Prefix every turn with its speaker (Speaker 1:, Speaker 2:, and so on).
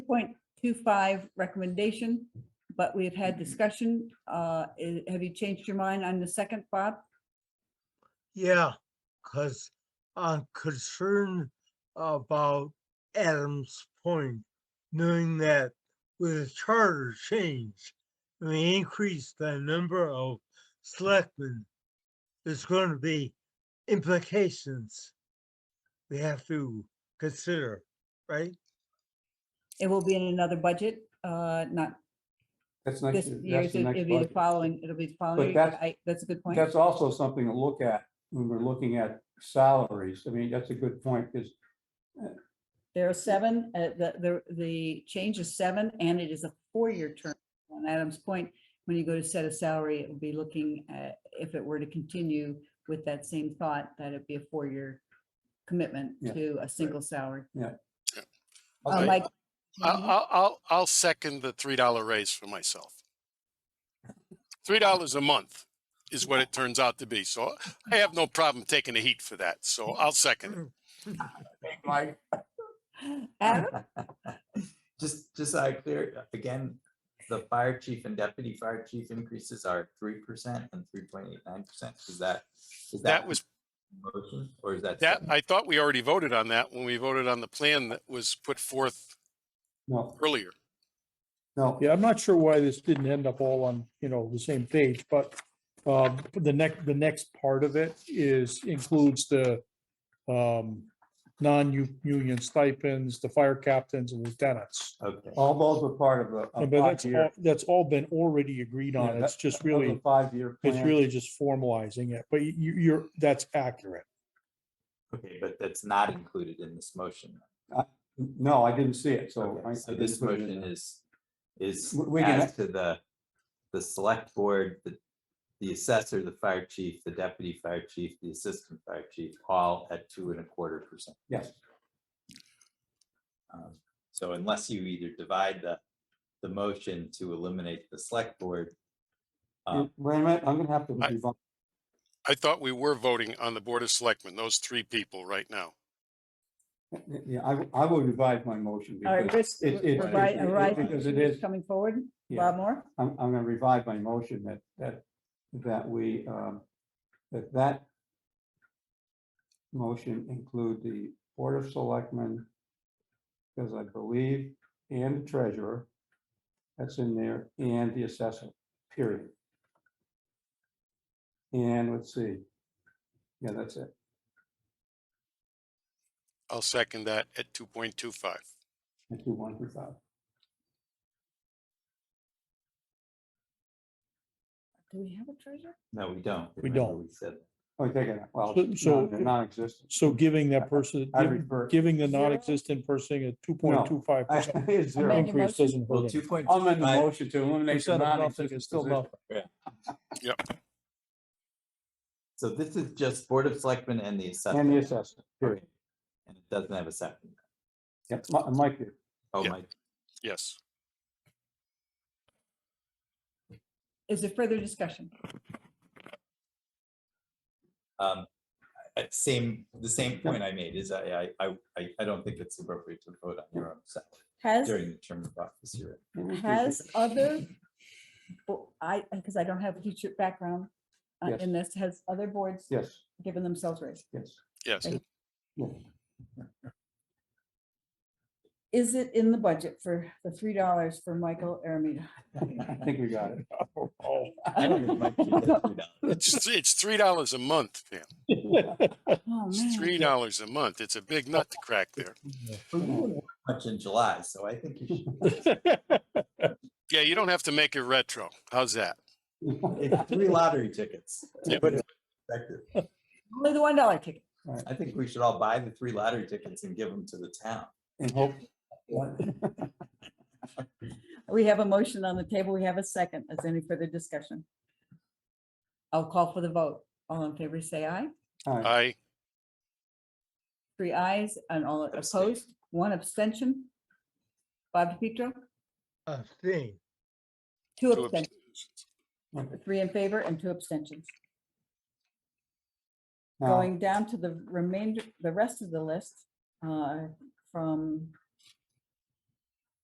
Speaker 1: point two five recommendation, but we've had discussion. Uh, i- have you changed your mind on the second, Bob?
Speaker 2: Yeah, because I'm concerned about Adam's point, knowing that with the charter change, we increase the number of selectmen, there's going to be implications we have to consider, right?
Speaker 1: It will be in another budget, uh, not
Speaker 3: That's next,
Speaker 1: this year,
Speaker 3: that's the
Speaker 1: it'll be
Speaker 3: next
Speaker 1: the
Speaker 3: budget.
Speaker 1: following, it'll be the following.
Speaker 3: But
Speaker 1: year, but
Speaker 3: that's-
Speaker 1: I- That's a good point.
Speaker 3: That's also something to look at when we're looking at salaries. I mean, that's a good point because
Speaker 1: There are seven, uh, the, the, the change is seven and it is a four-year term. On Adam's point, when you go to set a salary, it would be looking at, if it were to continue with that same thought, that it'd be a four-year commitment
Speaker 3: Yeah,
Speaker 1: to a single salary. Uh,
Speaker 4: Okay.
Speaker 1: Mike,
Speaker 4: I'll, I'll- I'll, I'll second the three dollar raise for myself. Three dollars a month is what it turns out to be. So I have no problem taking the heat for that. So I'll second it.
Speaker 5: Mike,
Speaker 1: Adam,
Speaker 5: just, just so I clear, again, the fire chief and deputy fire chief increases are three percent and three point eight nine percent. Is that, is that?
Speaker 4: That was,
Speaker 5: Motion or is that?
Speaker 4: that,
Speaker 5: second?
Speaker 4: I thought we already voted on that when we voted on the plan that was put forth
Speaker 3: no,
Speaker 4: earlier.
Speaker 3: no,
Speaker 6: Yeah, I'm not sure why this didn't end up all on, you know, the same page, but uh, the next, the next part of it is, includes the um, non-union stipends, the fire captains and lieutenants.
Speaker 5: Okay.
Speaker 3: all those were part of a-
Speaker 6: But
Speaker 3: a
Speaker 6: that's,
Speaker 3: five-year.
Speaker 6: all that's all been already agreed
Speaker 3: Yeah,
Speaker 6: on. It's
Speaker 3: that-
Speaker 6: just
Speaker 3: that was a
Speaker 6: really,
Speaker 3: Five-year
Speaker 6: it's
Speaker 3: plan.
Speaker 6: really just formalizing it, but you, you're, that's accurate.
Speaker 5: Okay, but that's not included in this motion.
Speaker 3: No, I didn't see it, so.
Speaker 5: Okay,
Speaker 3: I- I
Speaker 5: So
Speaker 3: didn't
Speaker 5: this
Speaker 3: put it in
Speaker 5: motion
Speaker 3: there.
Speaker 5: is, is
Speaker 3: W- we can
Speaker 5: as to the, the select board, the, the assessor, the fire chief, the deputy fire chief, the assistant fire chief, all at two and a quarter percent.
Speaker 3: Yes,
Speaker 5: Um, So unless you either divide the, the motion to eliminate the select board.
Speaker 3: wait
Speaker 5: um,
Speaker 3: a minute, I'm gonna have to.
Speaker 4: I-
Speaker 3: revise.
Speaker 4: I thought we were voting on the Board of Selectmen, those three people right now.
Speaker 3: Yeah, I, I will revise my motion
Speaker 1: all right,
Speaker 3: because
Speaker 1: Chris,
Speaker 3: it, it- it-
Speaker 1: right,
Speaker 3: it-
Speaker 1: right,
Speaker 3: because it is,
Speaker 1: coming forward,
Speaker 3: yeah.
Speaker 1: Bob Moore?
Speaker 3: I'm, I'm gonna revive my motion that, that, that we, um, that that motion include the Board of Selectmen, because I believe, and the treasurer, that's in there, and the assessor, period. And let's see, yeah, that's it.
Speaker 4: I'll second that at two point two five.
Speaker 3: I do one through five.
Speaker 1: Do we have a treasurer?
Speaker 5: No, we don't.
Speaker 6: We
Speaker 5: Remember
Speaker 6: don't.
Speaker 5: We said,
Speaker 3: Oh, take it, out. well,
Speaker 6: So- so-
Speaker 3: non- non-existent.
Speaker 6: So giving that person,
Speaker 3: I refer,
Speaker 6: giving the non-existent person a two point two five
Speaker 3: I,
Speaker 6: percent
Speaker 1: Amend
Speaker 3: it's
Speaker 1: your
Speaker 3: zero.
Speaker 6: increase
Speaker 1: motion.
Speaker 6: doesn't
Speaker 5: well,
Speaker 6: hurt
Speaker 5: two
Speaker 6: anyone.
Speaker 5: point.
Speaker 3: I'm in the motion to eliminate the
Speaker 6: Percent of nothing
Speaker 3: non-existent
Speaker 6: is still
Speaker 3: position.
Speaker 6: nothing.
Speaker 5: So this is just Board of Selectmen and the assessor.
Speaker 3: And the assessor, period.
Speaker 5: Okay. And it doesn't have a second.
Speaker 3: Yep, Mi- Mike, did.
Speaker 5: Oh,
Speaker 4: Yeah.
Speaker 5: Mike,
Speaker 4: Yes.
Speaker 1: Is there further discussion?
Speaker 5: um, uh, same, the same point I made is I, I, I, I, I don't think it's appropriate to vote on your own salary
Speaker 1: Has,
Speaker 5: during the term of office year.
Speaker 1: has other, bo- I, because I don't have a teacher background uh,
Speaker 3: Yes.
Speaker 1: in this, has other boards
Speaker 3: yes,
Speaker 1: given themselves raises?
Speaker 3: yes.
Speaker 4: Yes.
Speaker 1: Thank-
Speaker 3: Yeah.
Speaker 1: Is it in the budget for the three dollars for Michael Aramita? Oh,
Speaker 3: I think we got it.
Speaker 6: Oh,
Speaker 5: I don't think Mike should get $3.
Speaker 4: It's, it's three dollars a month, Pam.
Speaker 1: Oh,
Speaker 4: It's
Speaker 1: man.
Speaker 4: three dollars a month. It's a big nut to crack there.
Speaker 5: But we didn't work Much in July, so I think you should.
Speaker 4: Yeah, you don't have to make it retro. How's that?
Speaker 5: It's three lottery tickets. to
Speaker 4: Yeah.
Speaker 5: put it in perspective.
Speaker 1: Only the one dollar ticket.
Speaker 5: I think we should all buy the three lottery tickets and give them to the town.
Speaker 3: And hope,
Speaker 1: We have a motion on the table. We have a second. Is any further discussion? I'll call for the vote. All in favor, say aye.
Speaker 3: all right,
Speaker 4: I,
Speaker 1: Three ayes and all
Speaker 5: Abstain.
Speaker 1: opposed, one abstention. Bob DiPietro,
Speaker 2: A thing.
Speaker 1: two
Speaker 4: Two
Speaker 1: abstentions, three in favor and two abstentions.
Speaker 3: now,
Speaker 1: Going down to the remainder, the rest of the list, uh, from